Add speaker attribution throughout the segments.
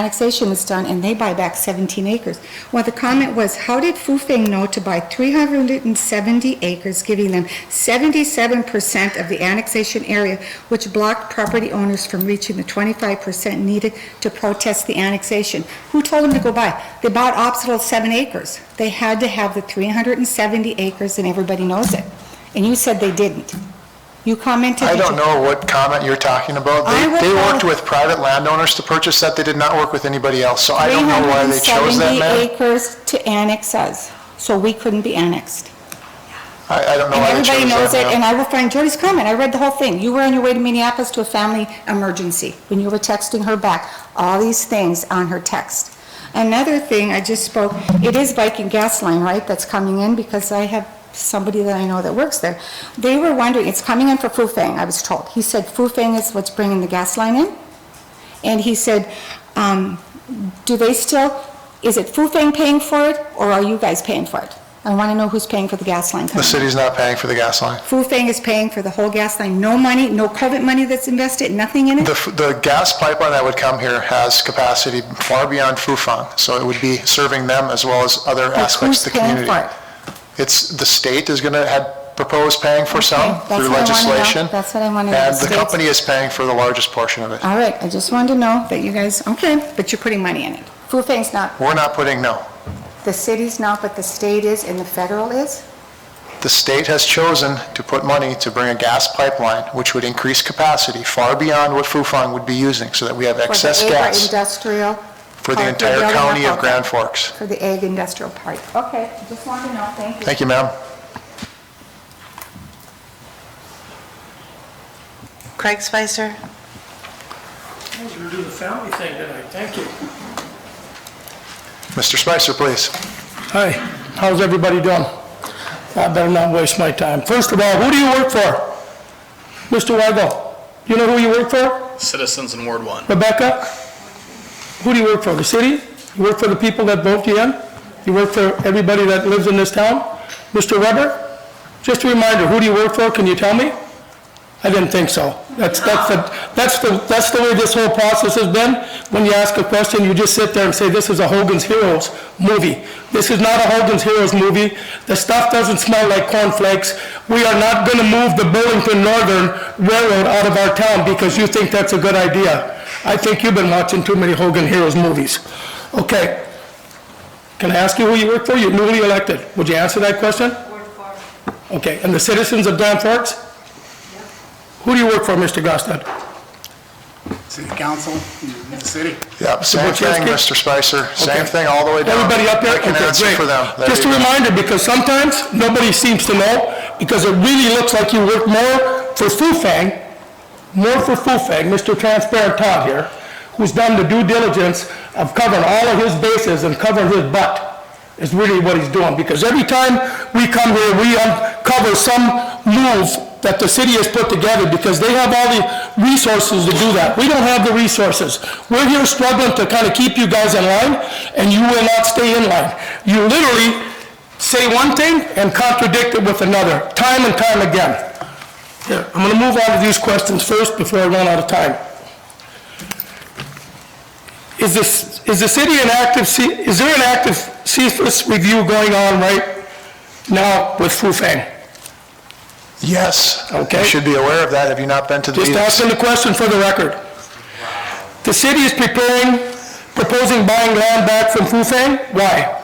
Speaker 1: annexation was done, and they buy back 17 acres. Well, the comment was, how did Fufeng know to buy 370 acres, giving them 77% of the annexation area, which blocked property owners from reaching the 25% needed to protest the annexation? Who told them to go buy? They bought optional seven acres. They had to have the 370 acres, and everybody knows it. And you said they didn't. You commented.
Speaker 2: I
Speaker 1: that
Speaker 2: don't
Speaker 1: you-
Speaker 2: know what comment you're talking about.
Speaker 1: I
Speaker 2: They,
Speaker 1: will
Speaker 2: they worked
Speaker 1: call-
Speaker 2: with private landowners to purchase that, they did not work with anybody else, so I don't know why they chose that
Speaker 1: 370
Speaker 2: map.
Speaker 1: acres to annex us, so we couldn't be annexed.
Speaker 2: I, I don't know
Speaker 1: And
Speaker 2: why they
Speaker 1: everybody
Speaker 2: chose
Speaker 1: knows it,
Speaker 2: that
Speaker 1: and
Speaker 2: map.
Speaker 1: I will find Jody's comment, I read the whole thing. You were on your way to Minneapolis to a family emergency, when you were texting her back, all these things on her text. Another thing, I just spoke, it is Viking Gas Line, right, that's coming in, because I have somebody that I know that works there. They were wondering, it's coming in for Fufang, I was told. He said Fufang is what's bringing the gas line in. And he said, um, do they still, is it Fufang paying for it, or are you guys paying for it? I want to know who's paying for the gas line
Speaker 2: The
Speaker 1: coming.
Speaker 2: city's not paying for the gas line.
Speaker 1: Fufang is paying for the whole gas line, no money, no COVID money that's invested, nothing in it?
Speaker 2: The, f- the gas pipeline that would come here has capacity far beyond Fufang, so it would be serving them as well as other
Speaker 1: Like,
Speaker 2: aspects of the community.
Speaker 1: Who's paying for it?
Speaker 2: It's, the state is gonna, had proposed paying for some
Speaker 1: Okay, that's
Speaker 2: through
Speaker 1: what I wanna know.
Speaker 2: legislation.
Speaker 1: That's what I wanna know,
Speaker 2: And
Speaker 1: the
Speaker 2: the
Speaker 1: states-
Speaker 2: company is paying for the largest portion of it.
Speaker 1: All right, I just wanted to know that you guys, okay, but you're putting money in it. Fufang's not,
Speaker 2: We're not putting, no.
Speaker 1: the city's not, but the state is and the federal is?
Speaker 2: The state has chosen to put money to bring a gas pipeline, which would increase capacity far beyond what Fufang would be using, so that we have excess
Speaker 1: For the
Speaker 2: gas
Speaker 1: industrial,
Speaker 2: for the
Speaker 1: part,
Speaker 2: entire
Speaker 1: building up
Speaker 2: county
Speaker 1: of
Speaker 2: of
Speaker 1: it.
Speaker 2: Grand Forks.
Speaker 1: for the ag industrial part. Okay, I just wanted to know, thank you.
Speaker 2: Thank you, ma'am.
Speaker 3: Craig Spicer,
Speaker 4: Oh, You're doing the family thing tonight, thank you.
Speaker 2: Mr. Spicer, please.
Speaker 5: Hi, how's everybody doing? I better not waste my time. First of all, who do you work for? Mr. Weigel, you know who you work for?
Speaker 6: Citizens in Ward 1.
Speaker 5: Rebecca? Who do you work for, the city? You work for the people that vote you in? You work for everybody that lives in this town? Mr. Weber? Just a reminder, who do you work for, can you tell me? I didn't think so. That's, that's the, that's the, that's the way this whole process has been. When you ask a question, you just sit there and say, this is a Hogan's Heroes movie. This is not a Hogan's Heroes movie. The stuff doesn't smell like cornflakes. We are not gonna move the Burlington Northern Railroad out of our town because you think that's a good idea. I think you've been watching too many Hogan Heroes movies. Okay. Can I ask you who you work for? You're newly elected. Would you answer that question? Okay, and the citizens of Grand Forks? Who do you work for, Mr. Gostad?
Speaker 7: City Council, the city.
Speaker 2: Yep, same
Speaker 5: Wojciechowski?
Speaker 2: thing, Mr. Spicer, same
Speaker 5: Okay.
Speaker 2: thing all the way down.
Speaker 5: Everybody up there?
Speaker 2: I can
Speaker 5: Okay,
Speaker 2: answer
Speaker 5: great.
Speaker 2: for them. There
Speaker 5: Just a
Speaker 2: you go.
Speaker 5: reminder, because sometimes nobody seems to know, because it really looks like you work more for Fufang, more for Fufang, Mr. Transparent Todd here, who's done the due diligence of covering all of his bases and covering his butt, is really what he's doing. Because every time we come here, we uncover some move that the city has put together, because they have all the resources to do that. We don't have the resources. We're here struggling to kind of keep you guys in line, and you will not stay in line. You literally say one thing and contradict it with another, time and time again. Here, I'm going to move on to these questions first before I run out of time. Is this, is the city an active, C- is there an active CFIS review going on right now with Fufang?
Speaker 2: Yes.
Speaker 5: Okay.
Speaker 2: You should be aware of that, have you not been to the
Speaker 5: Just
Speaker 2: meetings?
Speaker 5: asking the question for the record. The city is preparing, proposing buying land back from Fufang? Why?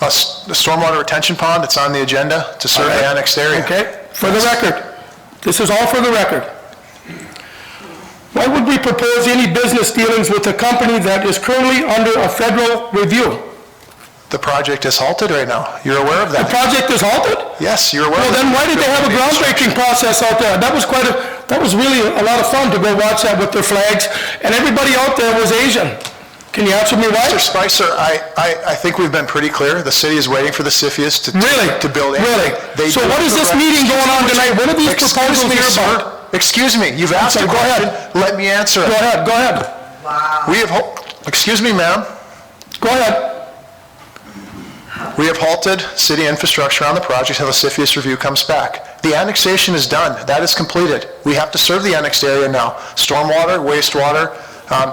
Speaker 2: A s- The stormwater retention pond, it's on the agenda to serve the
Speaker 5: Alright.
Speaker 2: annexed area.
Speaker 5: Okay, for the record. This is all for the record. Why would we propose any business dealings with a company that is currently under a federal review?
Speaker 2: The project is halted right now, you're aware of
Speaker 5: The
Speaker 2: that?
Speaker 5: project is halted?
Speaker 2: Yes, you're aware of
Speaker 5: Well,
Speaker 2: that.
Speaker 5: then why did they have a groundbreaking process out there? That was quite a, that was really a lot of fun to go watch that with their flags, and everybody out there was Asian. Can you answer me why?
Speaker 2: Mr. Spicer, I, I, I think we've been pretty clear. The city is waiting for the CFIUS to.
Speaker 5: Really?
Speaker 2: To build. in.
Speaker 5: Really?
Speaker 2: They
Speaker 5: So
Speaker 2: do
Speaker 5: what is this
Speaker 2: provide-
Speaker 5: meeting going on tonight? What are these
Speaker 2: Excuse
Speaker 5: proposals
Speaker 2: me,
Speaker 5: here
Speaker 2: sir.
Speaker 5: about?
Speaker 2: Excuse me, you've asked a
Speaker 5: sorry, go ahead.
Speaker 2: question. Let me answer
Speaker 5: Go
Speaker 2: it.
Speaker 5: ahead, go ahead,
Speaker 2: We have, hal- excuse me, ma'am.
Speaker 5: go ahead.
Speaker 2: We have halted city infrastructure on the project until the CFIUS review comes back. The annexation is done. That is completed. We have to serve the annexed area now. Stormwater, wastewater, um,